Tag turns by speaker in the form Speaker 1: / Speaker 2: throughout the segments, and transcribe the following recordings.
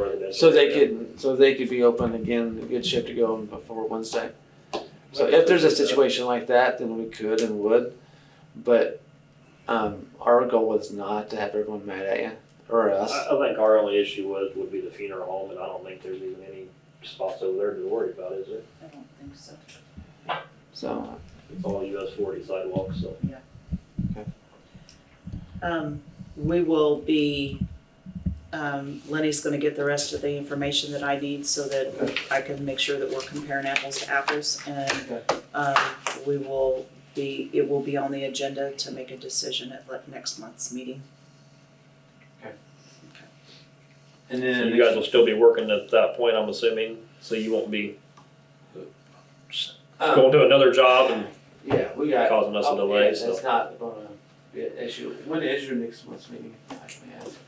Speaker 1: is.
Speaker 2: So they could, so they could be open again, a good shift to go on before Wednesday. So if there's a situation like that, then we could and would, but, um, our goal was not to have everyone mad at you or
Speaker 1: I,
Speaker 2: us.
Speaker 1: I think our only issue was, would be the funeral home, and I don't think there's even any spots over there to worry about, is there?
Speaker 3: I don't think so.
Speaker 2: So,
Speaker 1: It's all US forty sidewalks, so.
Speaker 3: Um, we will be, um, Lenny's gonna get the rest of the information that I need so that I can make sure that we're comparing apples to apples and, um, we will be, it will be on the agenda to make a decision at like next month's meeting.
Speaker 2: and
Speaker 1: So
Speaker 2: then.
Speaker 1: you guys will still be working at that point, I'm assuming, so you won't be
Speaker 2: Um,
Speaker 1: going to another job and
Speaker 2: Yeah, we got.
Speaker 1: causing us a
Speaker 2: oh, yeah,
Speaker 1: delay, so.
Speaker 2: That's not gonna be an issue. When is your next month's meeting? I can ask.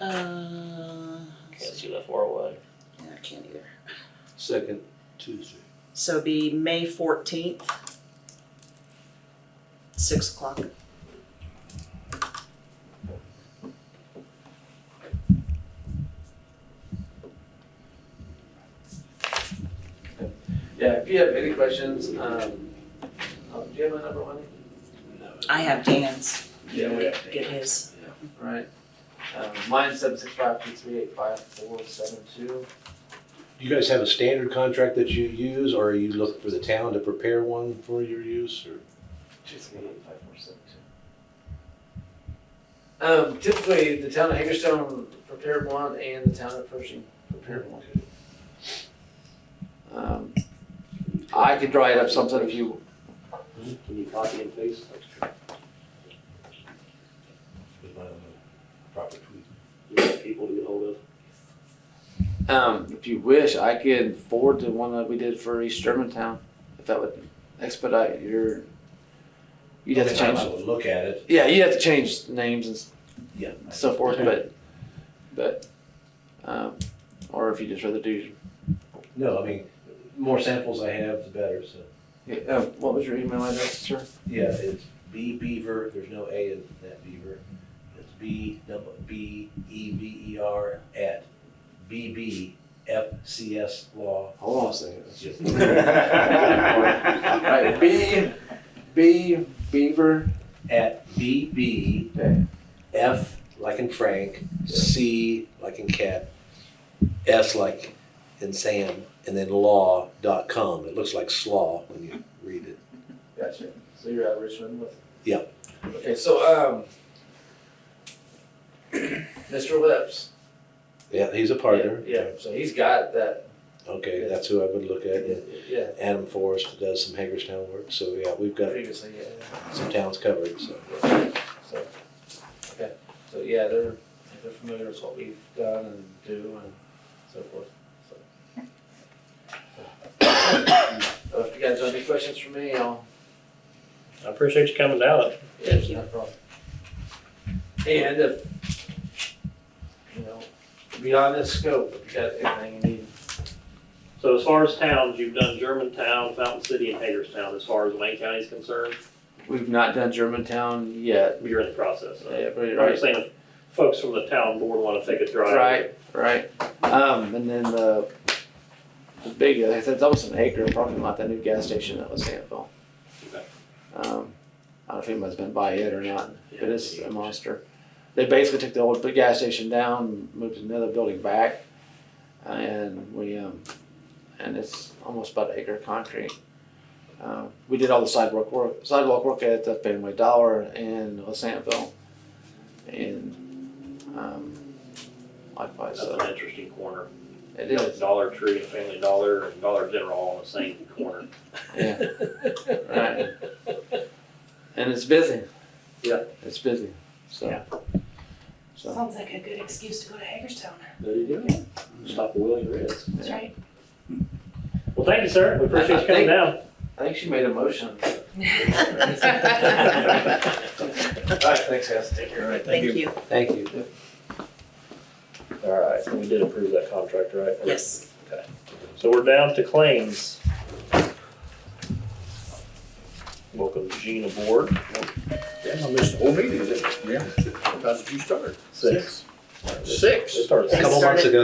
Speaker 3: Uh,
Speaker 1: Can't see that far away.
Speaker 3: I can't either.
Speaker 4: Second Tuesday.
Speaker 3: So it'd be May fourteenth, six o'clock.
Speaker 2: Yeah, if you have any questions, um, oh, do you have my number one?
Speaker 3: I have Dan's,
Speaker 2: Yeah,
Speaker 3: get his.
Speaker 2: Right. Um, mine's seven six five two three eight five four seven two.
Speaker 4: Do you guys have a standard contract that you use, or are you looking for the town to prepare one for your use, or?
Speaker 2: Two three eight five four seven two. Um, typically, the town of Hagerstown prepared one and the town of Pershing prepared one. Um, I could draw it up something if you
Speaker 1: Can you copy and paste?
Speaker 4: Proper tweet.
Speaker 1: You got people to get hold of?
Speaker 2: Um, if you wish, I could forward the one that we did for East Germantown, if that would expedite your. You'd have to
Speaker 4: Anytime
Speaker 2: change.
Speaker 4: I would look at it.
Speaker 2: Yeah, you would have to change names and s-
Speaker 4: Yeah.
Speaker 2: so forth, but, but, um, or if you just rather do.
Speaker 4: No, I mean, more samples I have, the better, so.
Speaker 2: Yeah, Uh, what was your email address, sir?
Speaker 4: Yeah, it's B Beaver, there's no A in that Beaver. It's B, double, B, E, V, E, R, at, B, B, F, C, S, law.
Speaker 2: Hold on a second. Alright,
Speaker 4: Right,
Speaker 2: B, B, Beaver.
Speaker 4: at BB,
Speaker 2: Okay.
Speaker 4: F like in Frank, C like in cat, S like in Sam, and then law dot com. It looks like slaw when you read it.
Speaker 2: Gotcha. So you're at Richmond with?
Speaker 4: Yeah.
Speaker 2: Okay, so, um, Mr. Lips.
Speaker 4: Yeah, he's a partner.
Speaker 2: Yeah, so he's got that,
Speaker 4: Okay, that's who I would look at. Yeah.
Speaker 2: yeah,
Speaker 4: Adam Forrest does some Hagerstown work, so yeah, we've got
Speaker 2: previously, yeah.
Speaker 4: some towns covered. So
Speaker 2: So, okay, so yeah, they're, they're familiar with what we've done and do and so forth, so. So If you guys have any questions for me, I'll.
Speaker 1: I appreciate you coming down.
Speaker 3: Thank you.
Speaker 2: No problem. And if, you know, beyond this scope, if you got anything you need,
Speaker 1: So as far as towns, you've done Germantown, Fountain City, and Hagerstown, as far as Wayne County is concerned,
Speaker 2: we've not done Germantown yet.
Speaker 1: you're in the process of.
Speaker 2: Yeah, pretty
Speaker 1: I'm just saying, if folks from the town board wanna take a drive.
Speaker 2: Right, right. Um, and then the, the big, it's it's almost an acre parking lot, that new gas station that was Santville.
Speaker 1: Okay.
Speaker 2: Um, I don't know if anybody's been by it or not, but it's a monster. They basically took the old big gas station down, moved another building back, and we, um, and it's almost about an acre of concrete. Um, we did all the sidewalk work, sidewalk work at the Family Dollar and Santville. And, um, likewise,
Speaker 1: That's
Speaker 2: so.
Speaker 1: an interesting corner.
Speaker 2: It is,
Speaker 1: Dollar Tree, and Family Dollar, and Dollar General all in the same corner.
Speaker 2: yeah. Right. And it's busy.
Speaker 1: Yeah.
Speaker 2: It's busy, so.
Speaker 1: Yeah.
Speaker 2: So,
Speaker 5: Sounds like a good excuse to go to Hagerstown.
Speaker 1: There you go. Stop a wheel, you're in.
Speaker 5: That's
Speaker 2: Yeah.
Speaker 5: right.
Speaker 1: Well, thank you, sir. We appreciate you coming down.
Speaker 2: I think she made a motion. All right, thanks, guys. Take care.
Speaker 3: Thank you.
Speaker 4: thank you.
Speaker 1: All right, so we did approve that contract, right?
Speaker 3: Yes.
Speaker 1: So we're down to claims. Welcome Gene aboard.
Speaker 6: Yeah, I missed the whole meeting, yeah. How did you start?
Speaker 1: Six.
Speaker 6: Six?
Speaker 1: It started six.
Speaker 4: A couple months ago,